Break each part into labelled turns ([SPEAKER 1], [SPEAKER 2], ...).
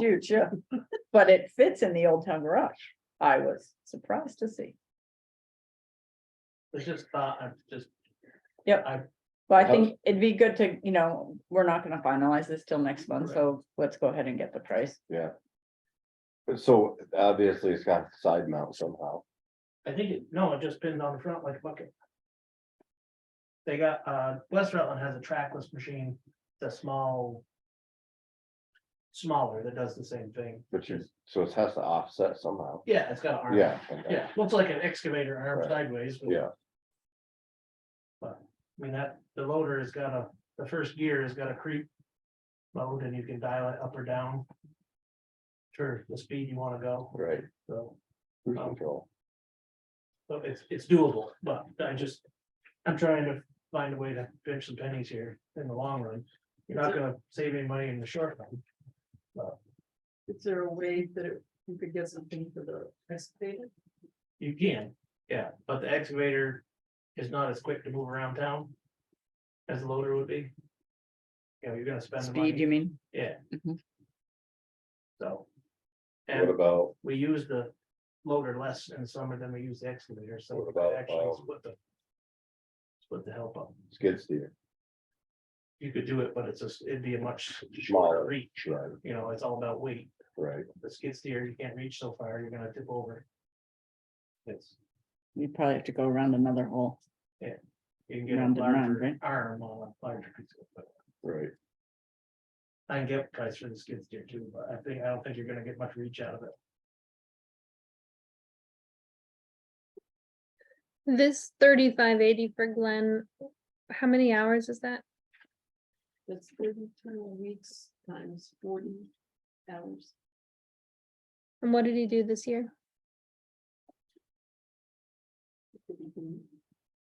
[SPEAKER 1] huge, yeah. But it fits in the Old Town Garage. I was surprised to see.
[SPEAKER 2] It's just, uh, I'm just,
[SPEAKER 1] But I
[SPEAKER 3] How-
[SPEAKER 1] think it'd be good to, you know, we're not gonna finalize this till next month, so let's go ahead and get the price.
[SPEAKER 3] yeah. So obviously it's got side mount somehow.
[SPEAKER 2] I think, it no, it just pinned on the front like a bucket. They got, uh, West Rutland has a trackless machine, the small. Smaller that does the same thing.
[SPEAKER 3] But you, so it has to offset somehow.
[SPEAKER 2] Yeah, it's got an arm.
[SPEAKER 3] Yeah. okay.
[SPEAKER 2] Yeah, looks like an excavator arm
[SPEAKER 3] Right.
[SPEAKER 2] sideways. but-
[SPEAKER 3] Yeah.
[SPEAKER 2] But, I mean, that, the loader has got a, the first gear has got a creep. Mode and you can dial it up or down. Sure, the speed you wanna go,
[SPEAKER 3] Right.
[SPEAKER 2] so.
[SPEAKER 3] Cruise
[SPEAKER 2] Um,
[SPEAKER 3] control.
[SPEAKER 2] So it's, it's doable, but I just, I'm trying to find a way to pinch some pennies here in the long run. You're not gonna save any money in the short run.
[SPEAKER 4] Is there a way that it- you could get something for the excavator?
[SPEAKER 2] You can, yeah, but the excavator is not as quick to move around town. As the loader would be. You know, you're gonna spend the
[SPEAKER 1] Speed, you
[SPEAKER 2] money,
[SPEAKER 1] mean?
[SPEAKER 2] so.
[SPEAKER 3] What
[SPEAKER 2] And
[SPEAKER 3] about,
[SPEAKER 2] we use the loader less in the summer than we use the excavator, so.
[SPEAKER 3] What
[SPEAKER 2] we
[SPEAKER 3] about,
[SPEAKER 2] actually
[SPEAKER 3] um,
[SPEAKER 2] split the Split the help up.
[SPEAKER 3] skid steer?
[SPEAKER 2] You could do it, but it's just, it'd be a much
[SPEAKER 3] Smaller.
[SPEAKER 2] shorter reach.
[SPEAKER 3] Right,
[SPEAKER 2] you know, it's all about weight.
[SPEAKER 3] right.
[SPEAKER 2] The skid steer, you can't reach so far, you're gonna tip over. It's,
[SPEAKER 1] You probably have to go around another hole.
[SPEAKER 2] you can get a
[SPEAKER 1] Round and round,
[SPEAKER 2] larger
[SPEAKER 1] right?
[SPEAKER 2] arm on a larger piece of equipment.
[SPEAKER 3] Right,
[SPEAKER 2] I can get price for the skid steer too, but I think, I don't think you're gonna get much reach out of it.
[SPEAKER 5] This thirty-five eighty for Glenn, how many hours is that?
[SPEAKER 4] That's thirty-two weeks times forty hours.
[SPEAKER 5] And what did he do this year?
[SPEAKER 4] that we can-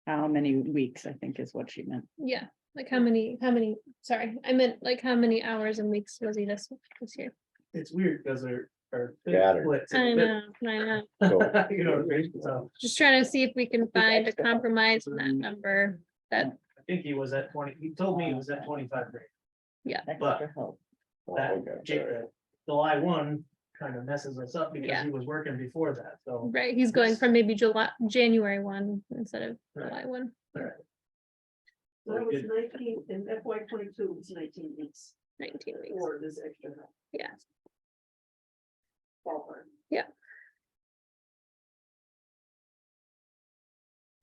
[SPEAKER 1] How many weeks, I think is what she meant.
[SPEAKER 5] Yeah, like how many, how many, sorry, I meant like how many hours and weeks was he this, this year?
[SPEAKER 2] It's weird, because they're, are.
[SPEAKER 3] Scattered.
[SPEAKER 5] I know, I know,
[SPEAKER 3] so
[SPEAKER 2] You know, what I mean? so
[SPEAKER 5] just trying to see if we can find a
[SPEAKER 1] extra.
[SPEAKER 5] compromise in that number.
[SPEAKER 2] I think he was at twenty, he told me he was at twenty-five grade. But-
[SPEAKER 1] Extra help.
[SPEAKER 3] oh,
[SPEAKER 2] That
[SPEAKER 3] okay,
[SPEAKER 2] J- uh,
[SPEAKER 3] alright.
[SPEAKER 2] July one kind of messes us up because
[SPEAKER 5] Yeah.
[SPEAKER 2] he was working before that, so.
[SPEAKER 5] Right, he's going
[SPEAKER 2] Yes.
[SPEAKER 5] from maybe July, January one instead of
[SPEAKER 2] Right.
[SPEAKER 5] July one.
[SPEAKER 4] So it was
[SPEAKER 2] Good.
[SPEAKER 4] nineteen, in FY twenty-two, it was nineteen weeks
[SPEAKER 5] 19 weeks.
[SPEAKER 4] for this extra. help.
[SPEAKER 5] Yeah.
[SPEAKER 4] Ballpark.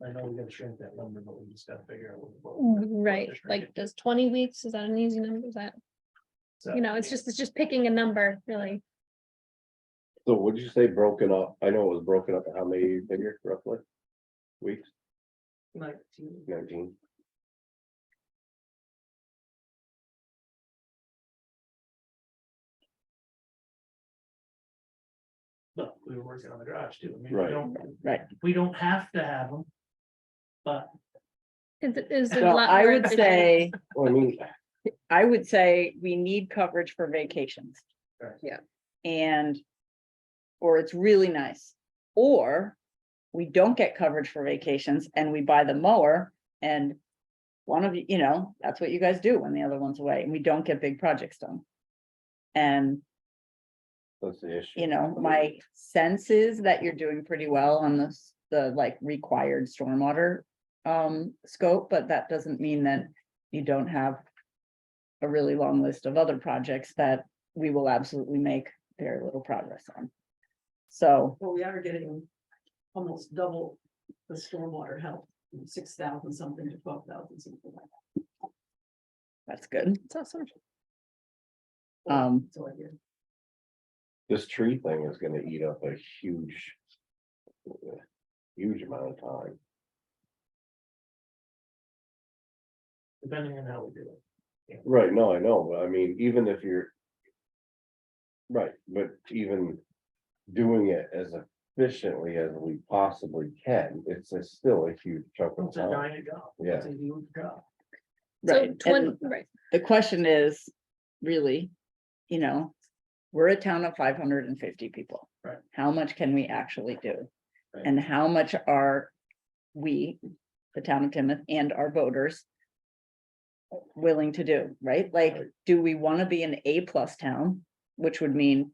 [SPEAKER 2] I know we gotta shrink that number, but we just gotta figure out. what- what-
[SPEAKER 5] Mm, Right,
[SPEAKER 2] just right
[SPEAKER 5] like does twenty weeks, is that an easy number, is that,
[SPEAKER 2] so-
[SPEAKER 1] Uh,
[SPEAKER 5] you know, it's just, it's just picking a number, really.
[SPEAKER 3] So would you say broken up? I know it was broken up, how many figure roughly? Weeks,
[SPEAKER 4] Nineteen.
[SPEAKER 3] nineteen?
[SPEAKER 2] But we were working on the garage too. I mean, we
[SPEAKER 3] Right.
[SPEAKER 2] don't,
[SPEAKER 1] Right.
[SPEAKER 2] we don't have to have them. But
[SPEAKER 5] Is it, is it a
[SPEAKER 1] So
[SPEAKER 5] lot?
[SPEAKER 1] I
[SPEAKER 5] more
[SPEAKER 1] would
[SPEAKER 5] efficient?
[SPEAKER 1] say.
[SPEAKER 3] Well, I mean,
[SPEAKER 1] I would say we need coverage for vacations.
[SPEAKER 2] Right.
[SPEAKER 5] Yeah.
[SPEAKER 1] And, or it's really nice, or we don't get coverage for vacations and we buy the mower and one of you, you know, that's what you guys do when the other one's away and we don't get big projects done. And,
[SPEAKER 3] that's the issue.
[SPEAKER 1] you know, my sense is that you're doing pretty well on this, the like required stormwater um scope, but that doesn't mean that you don't have a really long list of other projects that we will absolutely make very little progress on. So,
[SPEAKER 4] Well, we are getting almost double the stormwater help, six thousand something to twelve thousand something like
[SPEAKER 1] that's good.
[SPEAKER 5] It's awesome.
[SPEAKER 4] that.
[SPEAKER 1] Um,
[SPEAKER 4] So I did.
[SPEAKER 3] This tree thing is gonna eat up a huge. Huge amount of time.
[SPEAKER 2] depending on how we do it,
[SPEAKER 3] Right, no, I know, but I mean, even if you're. Right, but even doing it as efficiently as we possibly can, it's a- still a huge chunk of
[SPEAKER 2] it's a
[SPEAKER 3] time.
[SPEAKER 2] giant job.
[SPEAKER 3] Yeah.
[SPEAKER 2] It's a huge job.
[SPEAKER 5] So
[SPEAKER 1] right,
[SPEAKER 5] twenty,
[SPEAKER 1] and
[SPEAKER 5] right,
[SPEAKER 1] the question is, really, you know, we're a town of five hundred and fifty people.
[SPEAKER 2] Right.
[SPEAKER 1] How much can we actually do?
[SPEAKER 2] Right.
[SPEAKER 1] And how much are we, the town of Timoth and our voters willing to do, right? Like,
[SPEAKER 3] Right.
[SPEAKER 1] do we want to be an A plus town? which would mean